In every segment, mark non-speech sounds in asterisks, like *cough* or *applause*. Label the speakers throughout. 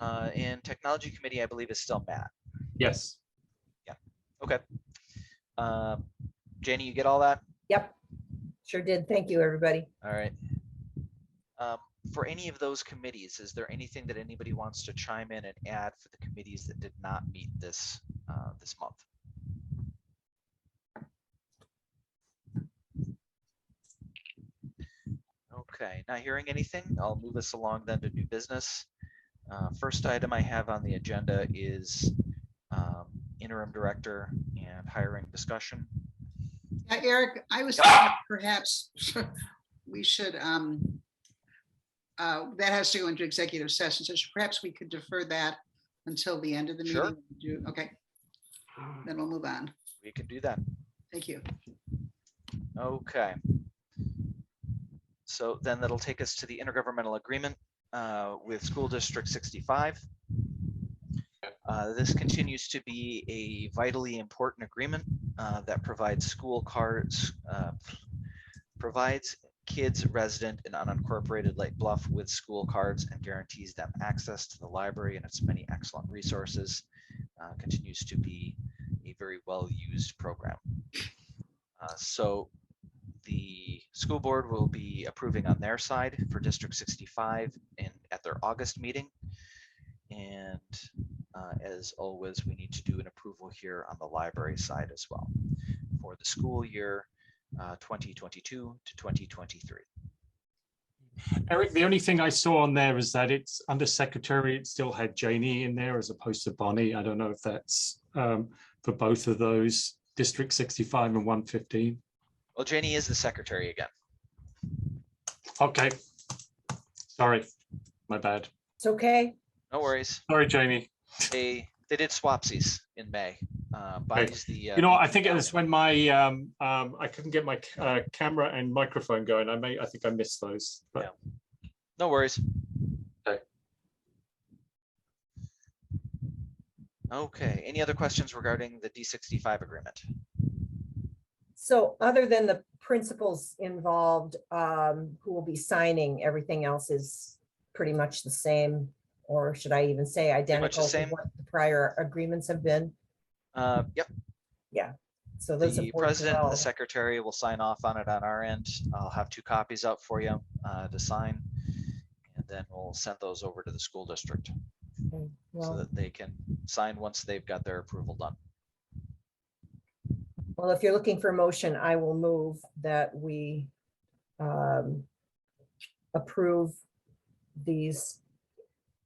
Speaker 1: Uh, and technology committee, I believe, is still Matt.
Speaker 2: Yes.
Speaker 1: Okay. Uh, Janie, you get all that?
Speaker 3: Yep, sure did. Thank you, everybody.
Speaker 1: All right. Um, For any of those committees, is there anything that anybody wants to chime in and add for the committees that did not meet this, uh, this month? Okay, not hearing anything. I'll move us along then to new business. Uh, First item I have on the agenda is um, interim director and hiring discussion.
Speaker 4: Yeah, Eric, I was thinking
Speaker 1: Ah!
Speaker 4: perhaps *laughs* we should, um, uh, that has to go into executive session, so perhaps we could defer that until the end of the
Speaker 1: Sure.
Speaker 4: meeting. Do- Okay, then we'll move on.
Speaker 1: We can do that.
Speaker 4: Thank you. *laughs*
Speaker 1: Okay. So then that'll take us to the intergovernmental agreement uh, with School District 65. Uh, This continues to be a vitally important agreement uh, that provides school cards, uh, provides kids resident in unincorporated Lake Bluff with school cards and guarantees them access to the library and its many excellent resources. Uh, Continues to be a very well-used program. Uh, So the school board will be approving on their side for District 65 and at their August meeting. And uh, as always, we need to do an approval here on the library side as well for the school year uh, 2022 to 2023.
Speaker 2: Eric, the only thing I saw on there is that it's under secretary, it still had Janie in there as opposed to Bonnie. I don't know if that's um, for both of those, District 65 and 115.
Speaker 1: Well, Janie is the secretary again.
Speaker 2: Okay. Sorry, my bad.
Speaker 3: It's okay.
Speaker 1: No worries.
Speaker 2: Sorry, Janie.
Speaker 1: They, they did swapsies in May. Uh, Bonnie's the.
Speaker 2: You know, I think it was when my, um, um, I couldn't get my c- uh, camera and microphone going. I may, I think I missed those, but
Speaker 1: No worries.
Speaker 2: Okay.
Speaker 1: Okay, any other questions regarding the D sixty-five agreement?
Speaker 3: So other than the principals involved, um, who will be signing, everything else is pretty much the same. Or should I even say
Speaker 1: much the
Speaker 3: identical to
Speaker 1: same.
Speaker 3: what the prior agreements have been?
Speaker 1: Uh, yep,
Speaker 3: So those. have
Speaker 1: the
Speaker 3: worked
Speaker 1: president and
Speaker 3: well.
Speaker 1: the secretary will sign off on it on our end. I'll have two copies up for you, uh, to sign. And then we'll send those over to the school district
Speaker 3: Okay,
Speaker 1: so
Speaker 3: Well,
Speaker 1: that they can sign once they've got their approval done.
Speaker 3: well, if you're looking for a motion, I will move that we um, approve these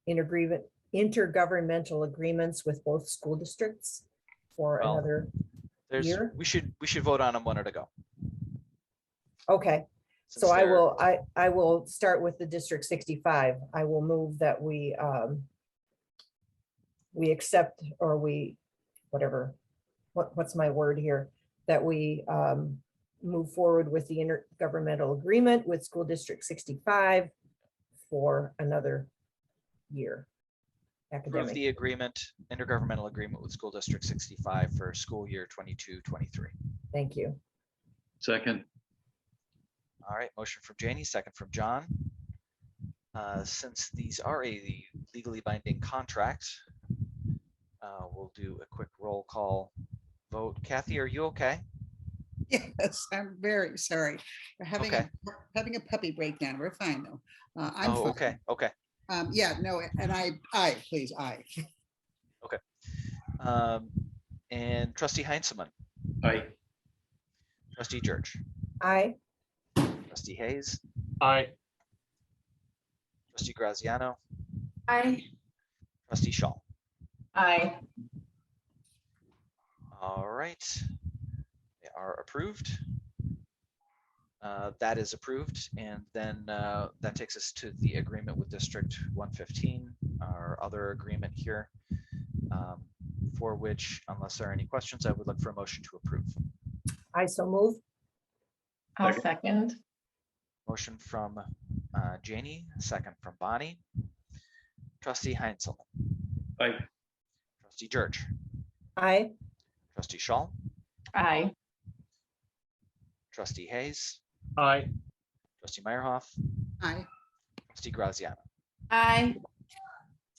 Speaker 3: intergreven, intergovernmental agreements with both school districts for
Speaker 1: Well,
Speaker 3: another,
Speaker 1: There's,
Speaker 3: Here?
Speaker 1: we should, we should vote on them one at a go.
Speaker 3: okay. So
Speaker 1: since
Speaker 3: I
Speaker 1: they're-
Speaker 3: will, I, I will start with the District sixty-five. I will move that we, um, we accept or we, whatever, what, what's my word here? That we, um, move forward with the intergovernmental agreement with School District sixty-five for another year.
Speaker 1: Approve
Speaker 3: Academic,
Speaker 1: the agreement, intergovernmental agreement with school district sixty-five for school year 22-23.
Speaker 3: thank you.
Speaker 5: Second,
Speaker 1: All right, motion from Janie, second from John. Uh, Since these are a legally binding contract, uh, we'll do a quick roll call vote. Kathy, are you okay?
Speaker 4: Yes, I'm very sorry. We're having, a-
Speaker 1: Okay.
Speaker 4: we're having a puppy breakdown. We're fine, though. Uh, I'm
Speaker 1: Oh,
Speaker 4: fine.
Speaker 1: okay, okay.
Speaker 4: Um, yeah, no, and I, I, please, I.
Speaker 1: Um, And trustee Heinzelman,
Speaker 5: aye,
Speaker 1: trustee George,
Speaker 3: I,
Speaker 1: trustee Hayes,
Speaker 2: I,
Speaker 1: trustee Graziano,
Speaker 6: Aye.
Speaker 1: trustee Shaw.
Speaker 6: Aye.
Speaker 1: All right. They are approved. Uh, That is approved, and then uh, that takes us to the agreement with District 115, our other agreement here. um, For which, unless there are any questions, I would look for a motion to approve.
Speaker 3: I so move.
Speaker 6: I'll
Speaker 5: Second.
Speaker 6: second.
Speaker 1: Motion from uh, Janie, second from Bonnie. Trustee Heinzel,
Speaker 5: aye,
Speaker 1: trustee George,
Speaker 3: I,
Speaker 1: trustee Shaw,
Speaker 6: Aye.
Speaker 1: trustee Hayes,
Speaker 2: I,
Speaker 1: trustee Meyerhoff,
Speaker 4: I,
Speaker 1: trustee Graziano.
Speaker 6: Aye.